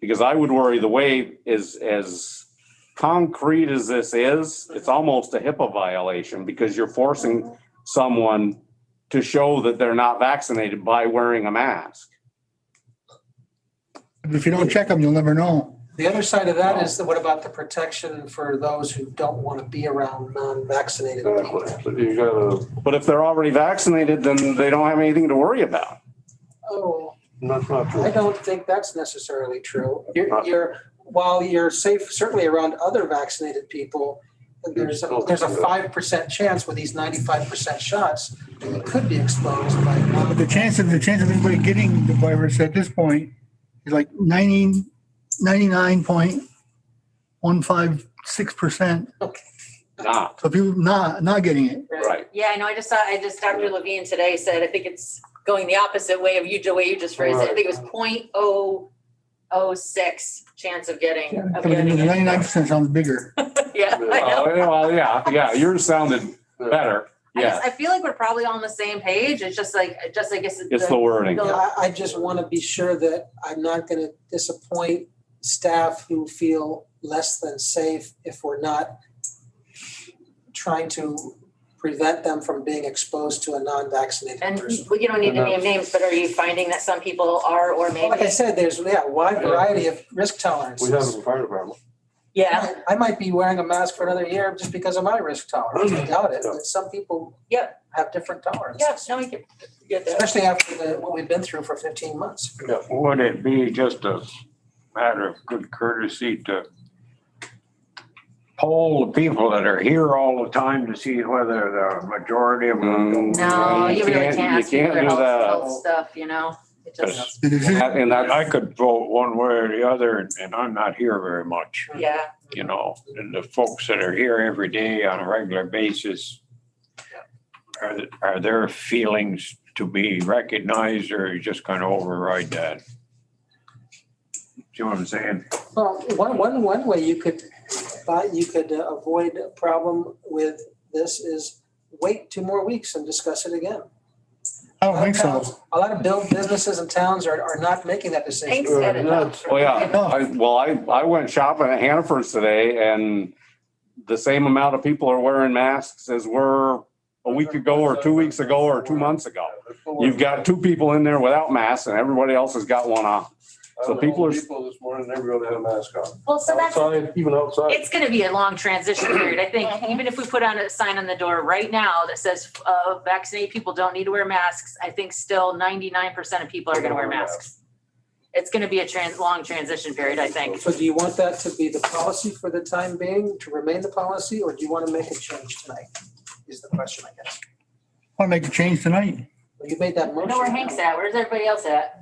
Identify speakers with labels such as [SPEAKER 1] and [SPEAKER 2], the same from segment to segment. [SPEAKER 1] Because I would worry the way is as concrete as this is, it's almost a HIPAA violation because you're forcing someone to show that they're not vaccinated by wearing a mask.
[SPEAKER 2] If you don't check them, you'll never know.
[SPEAKER 3] The other side of that is that what about the protection for those who don't want to be around non-vaccinated people?
[SPEAKER 4] Exactly. You gotta,
[SPEAKER 1] But if they're already vaccinated, then they don't have anything to worry about.
[SPEAKER 3] Oh,
[SPEAKER 4] that's not
[SPEAKER 3] I
[SPEAKER 4] true.
[SPEAKER 3] don't think that's necessarily true. You're, you're, while you're safe, certainly around other vaccinated people, there's, a- there's a five percent chance with these ninety-five percent shots that you could be exposed by.
[SPEAKER 2] But the chance of, the chance of anybody getting the virus at this point is like 90, 99.156%.
[SPEAKER 1] Not,
[SPEAKER 2] So if you're not, not getting it,
[SPEAKER 1] right.
[SPEAKER 5] Yeah, I know. I just saw, I just, Dr. Levine today said, I think it's going the opposite way of you, the way you just phrased it. I think it was point oh oh six chance of getting, of
[SPEAKER 2] Somebody
[SPEAKER 5] getting
[SPEAKER 2] who's
[SPEAKER 5] it.
[SPEAKER 2] 99% sounds bigger.
[SPEAKER 5] Yeah, I know.
[SPEAKER 1] Oh, yeah, Well, yeah, yeah, yours sounded better.
[SPEAKER 5] I
[SPEAKER 1] Yeah,
[SPEAKER 5] just, I feel like we're probably all on the same page. It's just like, just, I guess.
[SPEAKER 1] it's the wording.
[SPEAKER 3] No, I, I just want to be sure that I'm not going to disappoint staff who feel less than safe if we're not trying to prevent them from being exposed to a non-vaccinated
[SPEAKER 5] And
[SPEAKER 3] person.
[SPEAKER 5] you don't need to name names, but are you finding that some people are or
[SPEAKER 3] Like I
[SPEAKER 5] maybe?
[SPEAKER 3] said, there's, yeah, a wide variety of risk
[SPEAKER 4] We have it
[SPEAKER 3] tolerances.
[SPEAKER 4] in the fire department.
[SPEAKER 5] Yeah,
[SPEAKER 3] I I might be wearing a mask for another year just because of my risk tolerance. I doubt it, but some people
[SPEAKER 5] Yep.
[SPEAKER 3] have different tolerances.
[SPEAKER 5] yeah, no, I get, get that.
[SPEAKER 3] Especially after the, what we've been through for 15 months.
[SPEAKER 6] Would it be just a matter of good courtesy to poll the people that are here all the time to see whether the majority of them?
[SPEAKER 1] Mm.
[SPEAKER 5] No, you really
[SPEAKER 1] can't- you
[SPEAKER 5] can't ask
[SPEAKER 1] can't
[SPEAKER 5] people their
[SPEAKER 1] do
[SPEAKER 5] health,
[SPEAKER 1] that.
[SPEAKER 5] health stuff, you know? It just,
[SPEAKER 2] The decision-
[SPEAKER 1] And
[SPEAKER 6] That I
[SPEAKER 1] that's,
[SPEAKER 6] could vote one way or the other, and- and I'm not here very much,
[SPEAKER 5] yeah.
[SPEAKER 6] you know, and the folks that are here every day on a regular basis. Are, th- are their feelings to be recognized, or you just kind of override that? See what I'm saying?
[SPEAKER 3] Well, one, one, one way you could, but you could uh, avoid a problem with this is wait two more weeks and discuss it again.
[SPEAKER 2] I don't think so.
[SPEAKER 3] A lot of build businesses and towns are, are not making that decision.
[SPEAKER 5] Thanks, Ed. and Dr.
[SPEAKER 1] well, Oh, yeah, I, well, I, I went shopping at Hannaford's today and the same amount of people are wearing masks as were a week ago or two weeks ago or two months ago. You've got two people in there without masks and everybody else has got one on. so people are-
[SPEAKER 4] People this morning, everybody had a mask on.
[SPEAKER 5] Well, so that's,
[SPEAKER 4] Outside, even outside.
[SPEAKER 5] it's gonna be a long transition period, I think, even if we put on a sign on the door right now that says, uh, vaccinated people don't need to wear masks, I think still ninety-nine percent of people are gonna wear masks. It's gonna be a trans, long transition period, I think.
[SPEAKER 3] So do you want that to be the policy for the time being, to remain the policy, or do you want to make a change tonight? Is the question, I guess.
[SPEAKER 2] Want to make a change tonight?
[SPEAKER 3] Well, You made that
[SPEAKER 5] I
[SPEAKER 3] motion.
[SPEAKER 5] know where Hank's at, where's everybody else at?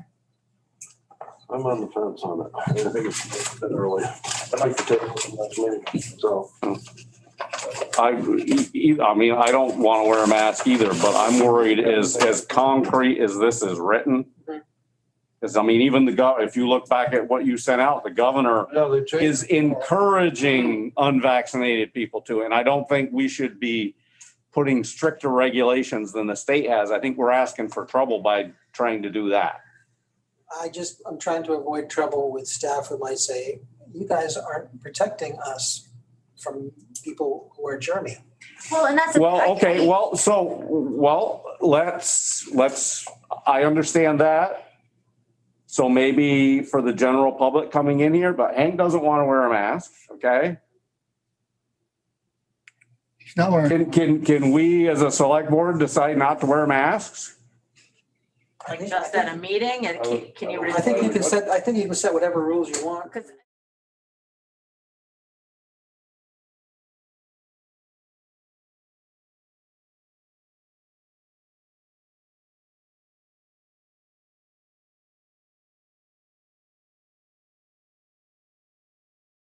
[SPEAKER 4] I'm on the fence on it. I think it's a bit early. I'd like to take it to the next meeting, so.
[SPEAKER 1] I, e- e- I mean, I don't want to wear a mask either, but I'm worried as, as concrete as this is written.
[SPEAKER 3] Mhm.
[SPEAKER 1] Because I mean, even the gov, if you look back at what you sent out, the governor
[SPEAKER 4] Yeah, they changed.
[SPEAKER 1] is encouraging unvaccinated people to, and I don't think we should be putting stricter regulations than the state has. I think we're asking for trouble by trying to do that.
[SPEAKER 3] I just, I'm trying to avoid trouble with staff who might say, you guys aren't protecting us from people who are germy.
[SPEAKER 5] Well, and that's.
[SPEAKER 1] Well, okay, well, so, well, let's, let's, I understand that. So maybe for the general public coming in here, but Hank doesn't want to wear a mask, okay?
[SPEAKER 2] It's not where,
[SPEAKER 1] Can, can, can we as a select board decide not to wear masks?
[SPEAKER 3] I think-
[SPEAKER 5] Just at a meeting and can- can you?
[SPEAKER 3] I think you can set, I think you can set whatever rules you want.
[SPEAKER 5] Because